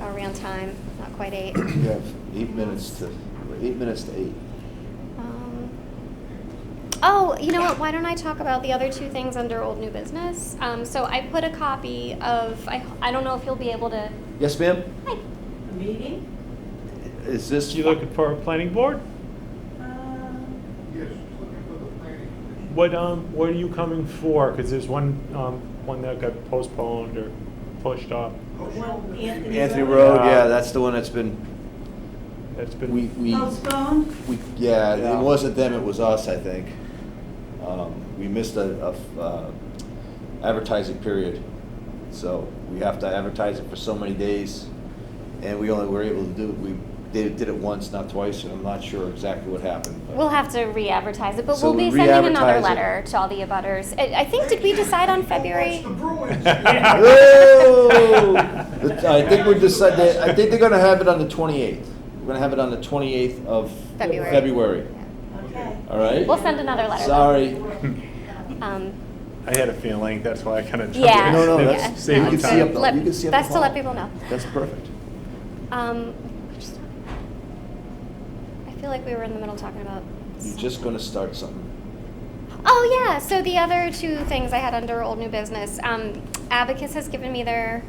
we're on time, not quite eight. You have eight minutes to, eight minutes to eight. Um, Oh, you know what? Why don't I talk about the other two things under old new business? Um, so I put a copy of, I, I don't know if you'll be able to, Yes, ma'am? hi, A meeting? Is this? You looking for a planning board? Um, Yes, she's looking for the planning commission. What, um, what are you coming for? Because there's one, um, one that got postponed or pushed off. Oh, she- Well, Anthony- Anthony Road, Uh, yeah, that's the one that's been, That's been. we, we, Oh, Postponed? we, yeah, Yeah. it wasn't them, it was us, I think. Um, We missed a, a f- uh, advertising period, so we have to advertise it for so many days. And we only were able to do, we did, did it once, not twice, and I'm not sure exactly what happened. but- we'll have to re-advertise it, but So we'll be we sending another re-advertise it. letter to all the abutters. I, I think, did we decide on February? Oh, it's the Yeah. Bruins. Oh! I think we're decided, I think they're gonna have it on the twenty-eighth. We're gonna have it on the twenty-eighth of February. February, Okay. all right? We'll send another letter. Sorry. Um, I had a feeling, that's why I kind of. Yeah. No, no, Yeah. that's, Save you on can see time. up, Let- the- you can see up the that's to let hall. people know. That's perfect. um, I feel like we were in the middle talking about. You're just gonna start something. Oh yeah. So the other two things I had under old new business, um, Abacus has given me their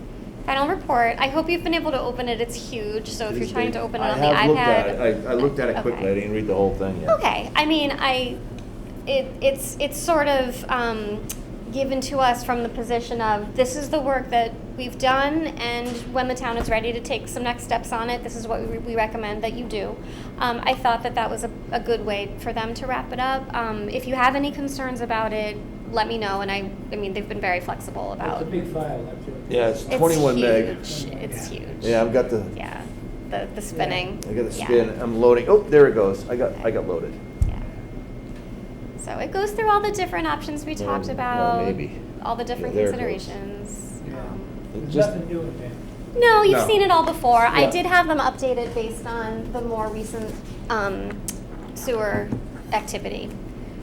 final report. I hope you've been able to open it. It's huge. So if you're trying to open it on the I have looked at iPad, it, I, I looked at it quickly, I Okay. didn't read the whole thing yet. Okay, I mean, I, it, it's, it's sort of um, given to us from the position of, this is the work that we've done, and when the town is ready to take some next steps on it, this is what we, we recommend that you do. Um, I thought that that was a, a good way for them to wrap it up. Um, If you have any concerns about it, let me know, and I, I mean, they've been very flexible It's about. a big file, that's it. Yeah, it's twenty-one meg. It's huge, it's huge. Yeah, I've got the, Yeah, the, the spinning. I got the Yeah. spin, I'm loading, oh, there it goes, I got, I got loaded. Yeah. So it goes through all the different options we Well, talked well, about, maybe. all the different Yeah, there it goes. considerations. Yeah. Um, It There's just- nothing new in there. no, you've No. seen it all before. I Yeah. did have them updated based on the more recent um, sewer activity,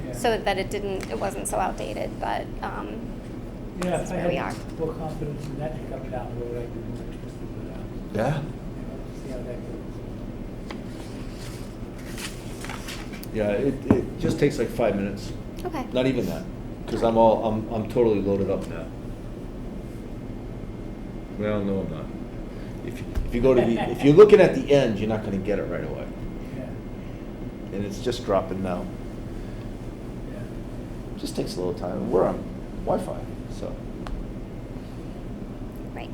Yeah. so that it didn't, it wasn't so outdated. But um, Yeah, this is if I where we had are. full confidence in that to come down the road, I'd be more interested in that. Yeah? You know, See how that goes. Yeah, it, it just takes like five minutes, okay, not even that, because I'm all, I'm, I'm totally loaded up now. Well, no, I'm not. If, you- if you go to the, if you're looking at the end, you're not gonna get it right away, Yeah, and it's just dropping now. yeah. It Just takes a little time, and we're on Wi-Fi, so. right.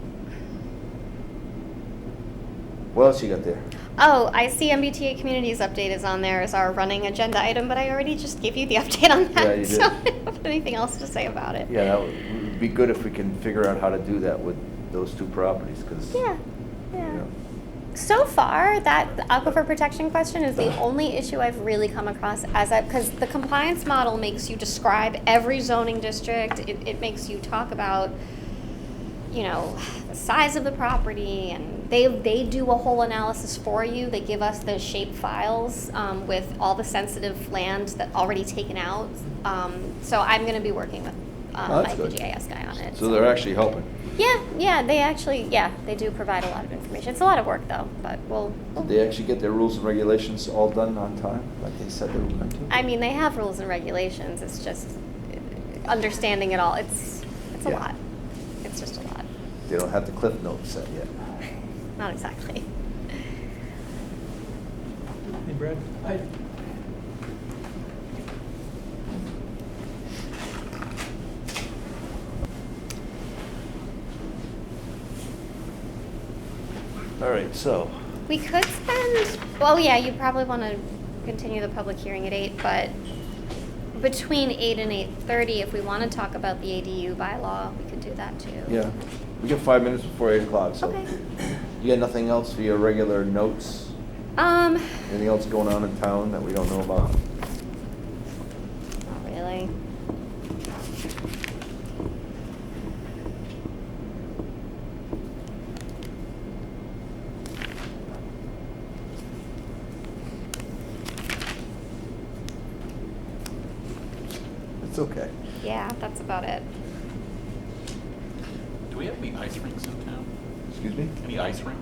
What else you got there? Oh, I see MBTA Communities update is on there as our running agenda item, but I already just gave you the update on that, Yeah, you did. so I don't have anything else to say about it. Yeah, that would it'd be good if we can figure out how to do that with those two properties, because. Yeah, yeah. So far, that the aquifer protection question is the only issue I've really come across as I, because the compliance model makes you describe every zoning district. It, it makes you talk about, you know, the size of the property and they, they do a whole analysis for you. They give us the shape files, um, with all the sensitive land that already taken out. Um, so I'm gonna be working with, Oh, uh, my that's good. PGIS guy on it. So they're actually helping. Yeah, yeah, they actually, yeah, they do provide a lot of information. It's a lot of work though, but we'll. we'll- Did they actually get their rules and regulations all done on time, like they said they were going to? I mean, they have rules and regulations. It's just uh, understanding it all. It's it's a Yeah. lot. It's just a lot. They don't have the cliff notes set yet. Not exactly. Hey, Brad. I, All right, so, We could spend. Well, yeah, you probably want to continue the public hearing at eight, but between eight and eight thirty, if we want to talk about the ADU bylaw, we could do that too. yeah, we got five minutes before eight o'clock, so. Okay. You got nothing else for your regular notes? Um. Anything else going on in town that we don't know about? Not really. It's okay. Yeah, that's about it. Do we have any ice rinks in town? Excuse me? Any ice rinks?